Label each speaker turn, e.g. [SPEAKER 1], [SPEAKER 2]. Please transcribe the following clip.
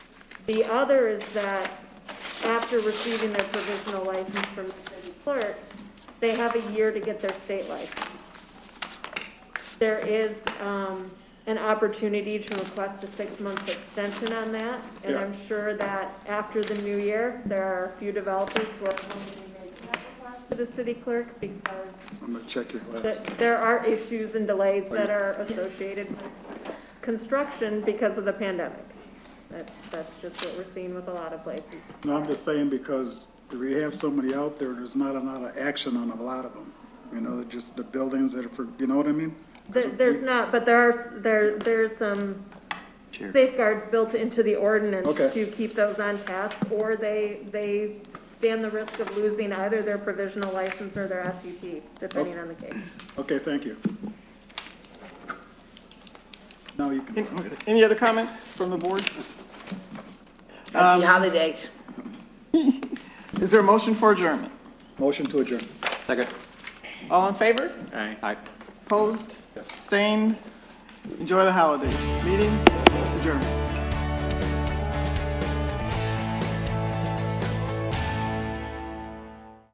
[SPEAKER 1] The other is that after receiving their provisional license from the city clerk, they have a year to get their state license. There is um, an opportunity to request a six-month extension on that, and
[SPEAKER 2] Yeah.
[SPEAKER 1] I'm sure that after the new year, there are a few developers who are going to make that request to the city clerk because
[SPEAKER 2] I'm gonna check your
[SPEAKER 1] that
[SPEAKER 2] last.
[SPEAKER 1] there are issues and delays that are associated with construction because of the pandemic. That's, that's just what we're seeing with a lot of places.
[SPEAKER 2] No, I'm just saying because we have so many out there, there's not a lot of action on a lot of them. You know, they're just the buildings that are for, you know what I mean?
[SPEAKER 1] There- There's not, but there are, s- there, there's some safeguards built into the ordinance
[SPEAKER 2] Okay.
[SPEAKER 1] to keep those on task, or they, they stand the risk of losing either their provisional license or their SUP, depending on the case.
[SPEAKER 2] Okay, thank you. Now you can.
[SPEAKER 3] Any other comments from the board?
[SPEAKER 4] Happy holidays.
[SPEAKER 3] Is there a motion for adjournment?
[SPEAKER 2] Motion to adjourn.
[SPEAKER 5] Second.
[SPEAKER 3] All in favor?
[SPEAKER 5] Aye.
[SPEAKER 3] Opposed? Abstained? Enjoy the holidays. Meeting is adjourned.